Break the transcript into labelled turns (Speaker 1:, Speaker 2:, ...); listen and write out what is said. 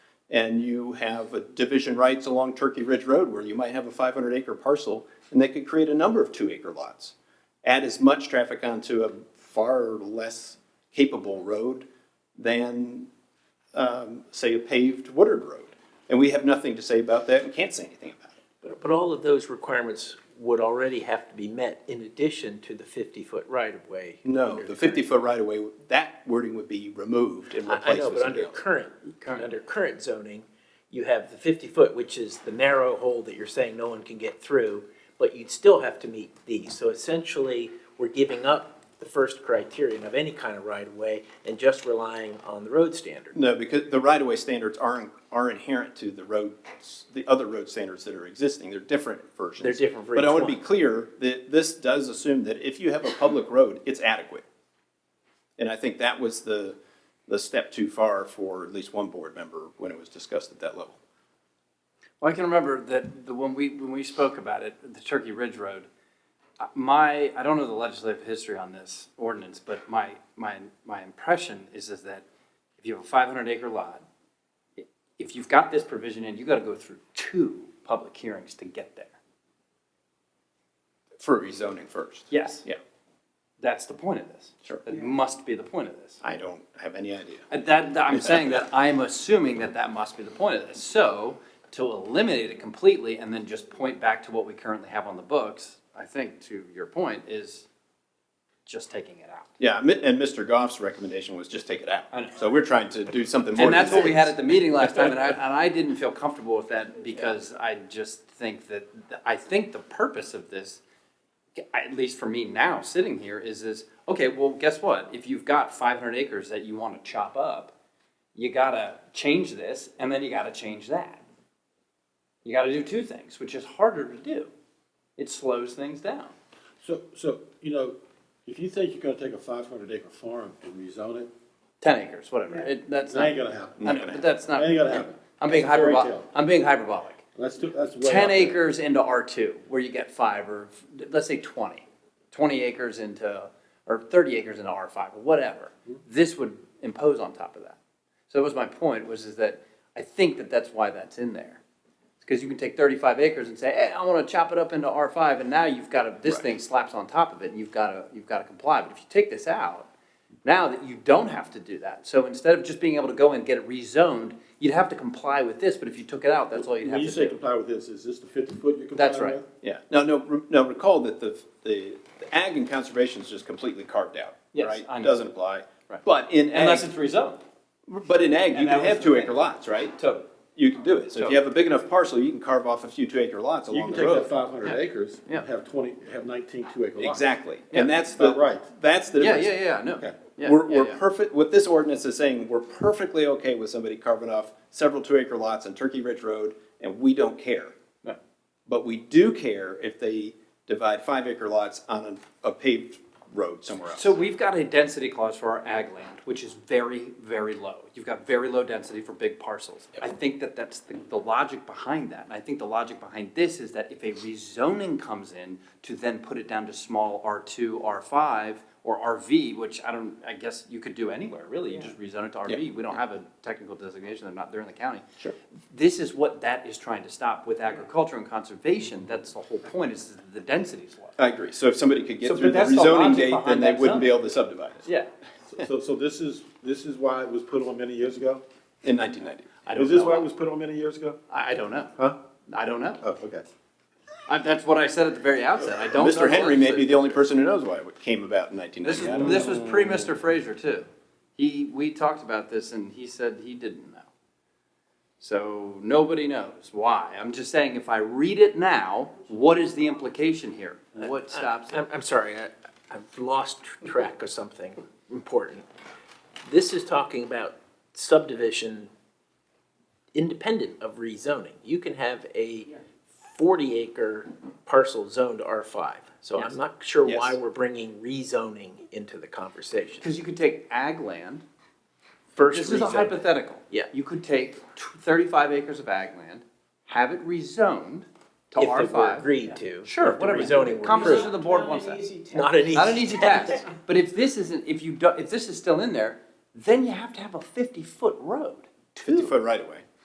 Speaker 1: and you have a division rights along Turkey Ridge Road where you might have a five hundred acre parcel, and they could create a number of two acre lots. Add as much traffic onto a far less capable road than, um, say, a paved Woodard Road. And we have nothing to say about that and can't say anything about it.
Speaker 2: But but all of those requirements would already have to be met in addition to the fifty-foot right-of-way.
Speaker 1: No,
Speaker 2: under
Speaker 1: the
Speaker 2: current-
Speaker 1: fifty foot right of way, that wording would be removed and
Speaker 2: I I
Speaker 1: replaced
Speaker 2: know,
Speaker 1: with
Speaker 2: but under
Speaker 1: something else.
Speaker 2: current, under current zoning, you have the fifty-foot, which is the narrow hole that you're saying no one can get through, but you'd still have to meet these. So essentially, we're giving up the first criterion of any kind of right-of-way and just relying on the road standard.
Speaker 1: No, because the right of way standards aren't, are inherent to the roads, the other road standards that are existing. They're different versions.
Speaker 2: They're different for
Speaker 1: But I
Speaker 2: each
Speaker 1: want to be
Speaker 2: one.
Speaker 1: clear that this does assume that if you have a public road, it's adequate. And I think that was the, the step too far for at least one board member when it was discussed at that level.
Speaker 3: Well, I can remember that the, when we, when we spoke about it, the Turkey Ridge Road, uh, my, I don't know the legislative history on this ordinance, but my, my, my impression is, is that if you have a five hundred acre lot, i- if you've got this provision in, you gotta go through two public hearings to get there.
Speaker 1: For rezoning first.
Speaker 3: Yes,
Speaker 1: Yeah,
Speaker 3: that's the point of this.
Speaker 1: Sure.
Speaker 3: That must be the point of this.
Speaker 1: I don't have any idea.
Speaker 3: And Uh, That, that- I'm saying that I'm assuming that that must be the point of this. So to eliminate it completely and then just point back to what we currently have on the books, I think to your point is just taking it out.
Speaker 1: Yeah, mi- and Mr. Goff's recommendation was just take it
Speaker 3: I know.
Speaker 1: out. So we're trying to do something more.
Speaker 3: And that's
Speaker 1: than
Speaker 3: what we had
Speaker 1: this.
Speaker 3: at the meeting last time and I, and I didn't feel comfortable with that because I just think that, I think the purpose of this, at least for me now, sitting here, is this, okay, well, guess what? If you've got five hundred acres that you wanna chop up, you gotta change this and then you gotta change that. You gotta do two things, which is harder to do. It slows things down.
Speaker 4: So, so, you know, if you think you're gonna take a five hundred acre farm and rezone it,
Speaker 3: Ten acres, whatever. It, that's
Speaker 4: it
Speaker 3: not.
Speaker 4: ain't gonna happen.
Speaker 3: I know, but that's not.
Speaker 4: Ain't gonna happen.
Speaker 3: I'm being
Speaker 4: That's a fairy
Speaker 3: hyperbolic,
Speaker 4: tale.
Speaker 3: I'm being hyperbolic.
Speaker 4: That's, too- that's way. out
Speaker 3: ten
Speaker 4: there.
Speaker 3: acres into R two, where you get five, or let's say 20, 20 acres into, or thirty acres into R five, or whatever.
Speaker 4: Mm-hmm.
Speaker 3: This would impose on top of that. So that was my point, was is that I think that that's why that's in there. Because you can take thirty-five acres and say, hey, I wanna chop it up into R five, and now you've got a, this thing slaps on top of it, and you've gotta, you've gotta comply. But if you take this out, now that you don't have to do that, so instead of just being able to go and get it rezoned, you'd have to comply with this, but if you took it out, that's all you'd have
Speaker 4: When
Speaker 3: to
Speaker 4: you
Speaker 3: do.
Speaker 4: say comply with this, is this the fifty foot you're complying with?
Speaker 3: That's right.
Speaker 1: Yeah, no, no, re- no, recall that the, the the ag and conservation is just completely carved out,
Speaker 3: Yes,
Speaker 1: right?
Speaker 3: I know.
Speaker 1: Doesn't apply.
Speaker 3: Right.
Speaker 1: But in
Speaker 3: Unless
Speaker 1: ag,
Speaker 3: it's rezoned.
Speaker 1: but in ag, you
Speaker 3: And that
Speaker 1: can
Speaker 3: was
Speaker 1: have
Speaker 3: the
Speaker 1: two
Speaker 3: thing.
Speaker 1: acre lots, right?
Speaker 3: Totally.
Speaker 1: You can do it. So if
Speaker 3: Totally.
Speaker 1: you have a big enough parcel, you can carve off a few two acre lots
Speaker 4: You can
Speaker 1: along the
Speaker 4: take that
Speaker 1: road.
Speaker 4: five hundred acres,
Speaker 3: Yeah.
Speaker 4: and have twenty, have nineteen two acre lots.
Speaker 1: Exactly.
Speaker 3: Yeah.
Speaker 1: And that's
Speaker 4: About
Speaker 1: the,
Speaker 4: right.
Speaker 1: that's the
Speaker 3: Yeah,
Speaker 1: difference.
Speaker 3: yeah, yeah, no.
Speaker 4: Okay.
Speaker 3: Yeah,
Speaker 1: We're,
Speaker 3: yeah,
Speaker 1: we're
Speaker 3: yeah.
Speaker 1: perfect, what this ordinance is saying, we're perfectly okay with somebody carving off several two acre lots on Turkey Ridge Road, and we don't care.
Speaker 3: Right.
Speaker 1: But we do care if they divide five acre lots on a a paved road somewhere else.
Speaker 3: So we've got a density clause for our ag land, which is very, very low. You've got very low density for big parcels. I think that that's the, the logic behind that. And I think the logic behind this is that if a rezoning comes in to then put it down to small R two, R five, or RV, which I don't, I guess you could do anywhere, really. You just rezone it to RV. We don't have a technical designation. They're not, they're in the county. Sure. This is what that is trying to stop with agriculture and conservation. That's the whole point is the density is low.
Speaker 1: I agree. So if somebody could
Speaker 3: So,
Speaker 1: get
Speaker 3: but
Speaker 1: through the
Speaker 3: that's the
Speaker 1: rezoning
Speaker 3: logic
Speaker 1: date, then
Speaker 3: behind
Speaker 1: they
Speaker 3: that
Speaker 1: wouldn't be
Speaker 3: zone.
Speaker 1: able to subdivide it
Speaker 3: Yeah.
Speaker 4: So, so this is, this is why it was put on many years ago?
Speaker 1: in nineteen ninety.
Speaker 3: I don't
Speaker 4: Is this
Speaker 3: know.
Speaker 4: why it was put on many years ago?
Speaker 3: I, I don't know.
Speaker 4: Huh?
Speaker 3: I don't know.
Speaker 4: Oh, okay.
Speaker 3: I, that's what I said at the very outset. I don't. know
Speaker 1: Mr. Henry may be
Speaker 3: honestly.
Speaker 1: the only person who knows why it came about in nineteen
Speaker 3: This
Speaker 1: ninety.
Speaker 3: is this was pre Mr. Fraser too. He we talked about this and he said he didn't know. So nobody knows why. I'm just saying if I read it now, what is the implication here? What stops it?
Speaker 2: I'm, I'm sorry, I, I've lost tr- track of something important. This is talking about subdivision independent of rezoning. You can have a forty acre parcel zoned R five. So I'm not sure why
Speaker 1: Yes.
Speaker 2: we're bringing rezoning into the conversation.
Speaker 3: Because you could take ag land.
Speaker 2: First
Speaker 3: This is a
Speaker 2: rezoning.
Speaker 3: hypothetical.
Speaker 2: Yeah.
Speaker 3: You could take tw- thirty-five acres of ag land, have it rezoned to
Speaker 2: If
Speaker 3: R
Speaker 2: it were
Speaker 3: five.
Speaker 2: agreed to.
Speaker 3: Sure,
Speaker 2: if the
Speaker 3: whatever.
Speaker 2: rezoning were
Speaker 3: Composition
Speaker 2: approved.
Speaker 3: of the board wants that.
Speaker 2: Not an easy.
Speaker 3: Not an easy task. But if this isn't, if you do, if this is still in there, then you have to have a fifty-foot road.
Speaker 1: Fifty foot right away.